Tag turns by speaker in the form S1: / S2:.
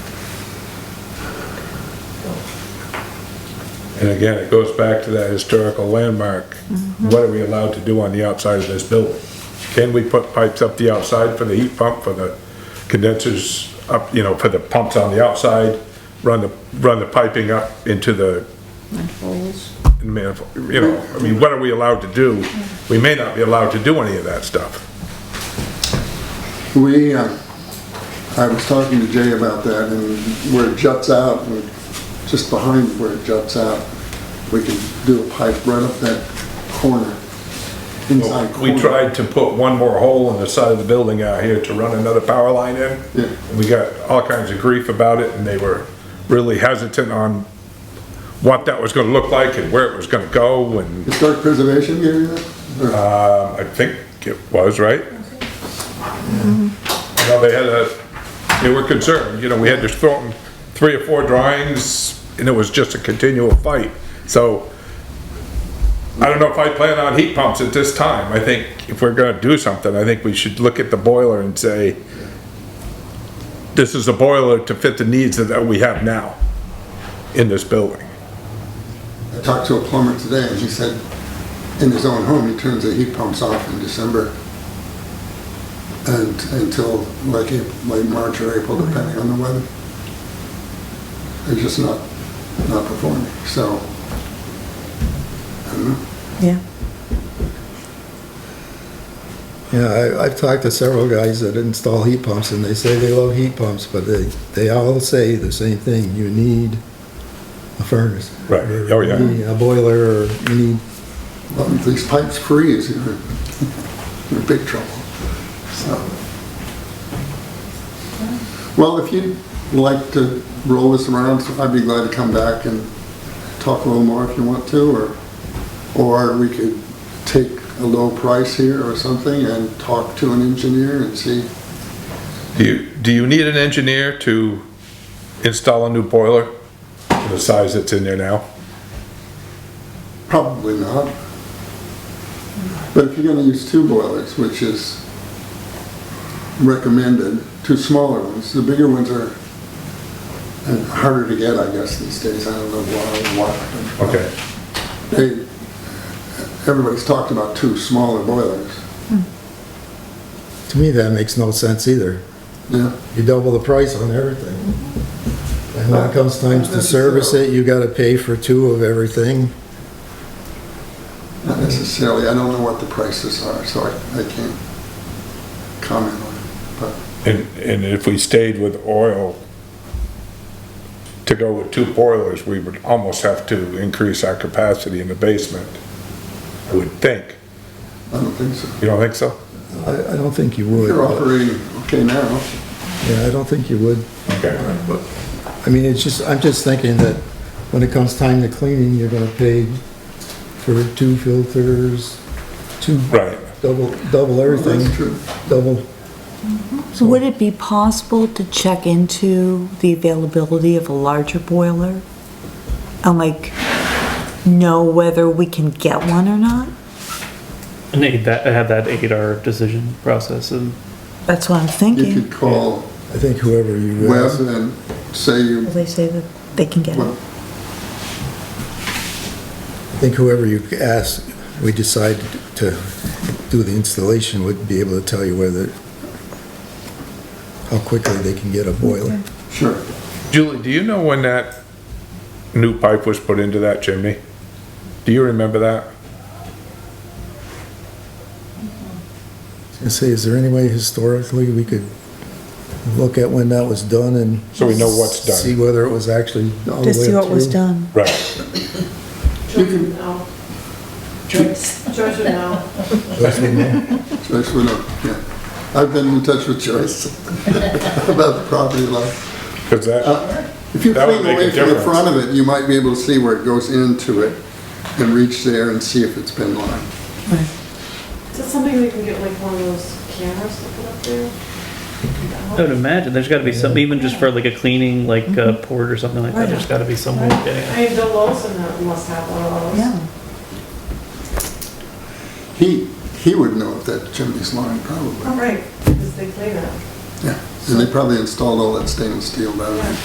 S1: And again, it goes back to that historical landmark. What are we allowed to do on the outside of this building? Can we put pipes up the outside for the heat pump, for the condensers up, you know, for the pumps on the outside? Run the, run the piping up into the
S2: Holes.
S1: manifold, you know, I mean, what are we allowed to do? We may not be allowed to do any of that stuff.
S3: We, uh, I was talking to Jay about that, and where it juts out, and just behind where it juts out, we can do a pipe right up that corner, inside corner.
S1: We tried to put one more hole in the side of the building out here to run another power line in.
S3: Yeah.
S1: And We got all kinds of grief about it and they were really hesitant on what that was gonna look like and where it was gonna go and,
S3: Historic preservation area? Or-
S1: um, I think it was, right? You know, they had a, they were concerned, you know, we had to throw them three or four drawings and it was just a continual fight. So I don't know if I plan on heat pumps at this time. I think if we're gonna do something, I think we should look at the boiler and say, this is a boiler to fit the needs that we have now in this building.
S3: I talked to a plumber today, and he said, in his own home, he turns the heat pumps off in December and until like, Ap- late March or April, depending on the weather. They're just not, not performing, so, I don't know.
S2: Yeah.
S4: Yeah, I, I've talked to several guys that install heat pumps and they say they love heat pumps, but they, they all say the same thing, you need a furnace.
S1: Right.
S4: Or
S1: Oh, yeah.
S4: you need A boiler, or you need,
S3: Well, if these pipes freeze, you're you're in big trouble, so. Well, if you'd like to roll this around, I'd be glad to come back and talk a little more if you want to, or, or we could take a low price here or something and talk to an engineer and see.
S1: Do you, do you need an engineer to install a new boiler for the size that's in there now?
S3: Probably not. But if you're gonna use two boilers, which is recommended, two smaller ones, the bigger ones are uh, harder to get, I guess, these days, I don't know why, why.
S1: Okay.
S3: They, everybody's talked about two smaller boilers,
S4: to me, that makes no sense either.
S3: yeah.
S4: You double the price on everything. And when it comes times to service it, you gotta pay for two of everything.
S3: Not necessarily, I don't know what the prices are, so I, I can't comment on it, but.
S1: And, and if we stayed with oil to go with two boilers, we would almost have to increase our capacity in the basement. I would think.
S3: I don't think so.
S1: You don't think so?
S4: I, I don't think you would.
S3: They're
S4: but-
S3: operating okay now.
S4: Yeah, I don't think you would.
S1: Okay.
S4: I mean, it's just, I'm just thinking that when it comes time to cleaning, you're gonna pay for two filters, two
S1: Right.
S4: double, double everything,
S3: That's true.
S4: double.
S2: So would it be possible to check into the availability of a larger boiler? And like, know whether we can get one or not?
S5: And aid that, have that aid our decision process and
S2: That's what I'm
S3: You
S2: thinking.
S3: could call
S4: I think whoever you.
S3: Wes and say you
S2: They say that they can get
S3: Well,
S2: it.
S4: I think whoever you ask, we decide to do the installation would be able to tell you whether, how quickly they can get a boiler.
S3: Sure.
S1: Julie, do you know when that new pipe was put into that chimney? Do you remember that?
S4: And say, is there any way historically we could look at when that was done and.
S1: So we know what's done.
S4: See whether it was actually all the way up
S2: To see what was
S4: through?
S2: done.
S1: Right.
S6: Children now. Children now.
S3: Joyce would know, yeah. I've been in touch with Joyce about the property line.
S1: Because that,
S3: If you
S1: That would make
S3: clean
S1: a
S3: away from the
S1: difference.
S3: front of it, you might be able to see where it goes into it and reach there and see if it's been lined.
S6: Is that something we can get like one of those cameras to put up there?
S5: I would imagine there's got to be some, even just for like a cleaning, like a port or something like that, there's got to be some way of getting it.
S6: I mean, Bill Wilson must have one of those.
S2: Yeah.
S3: He, he would know if that chimney's lined, probably.
S6: All right, because they clean it.
S3: Yeah. And they probably installed all that stainless steel by then.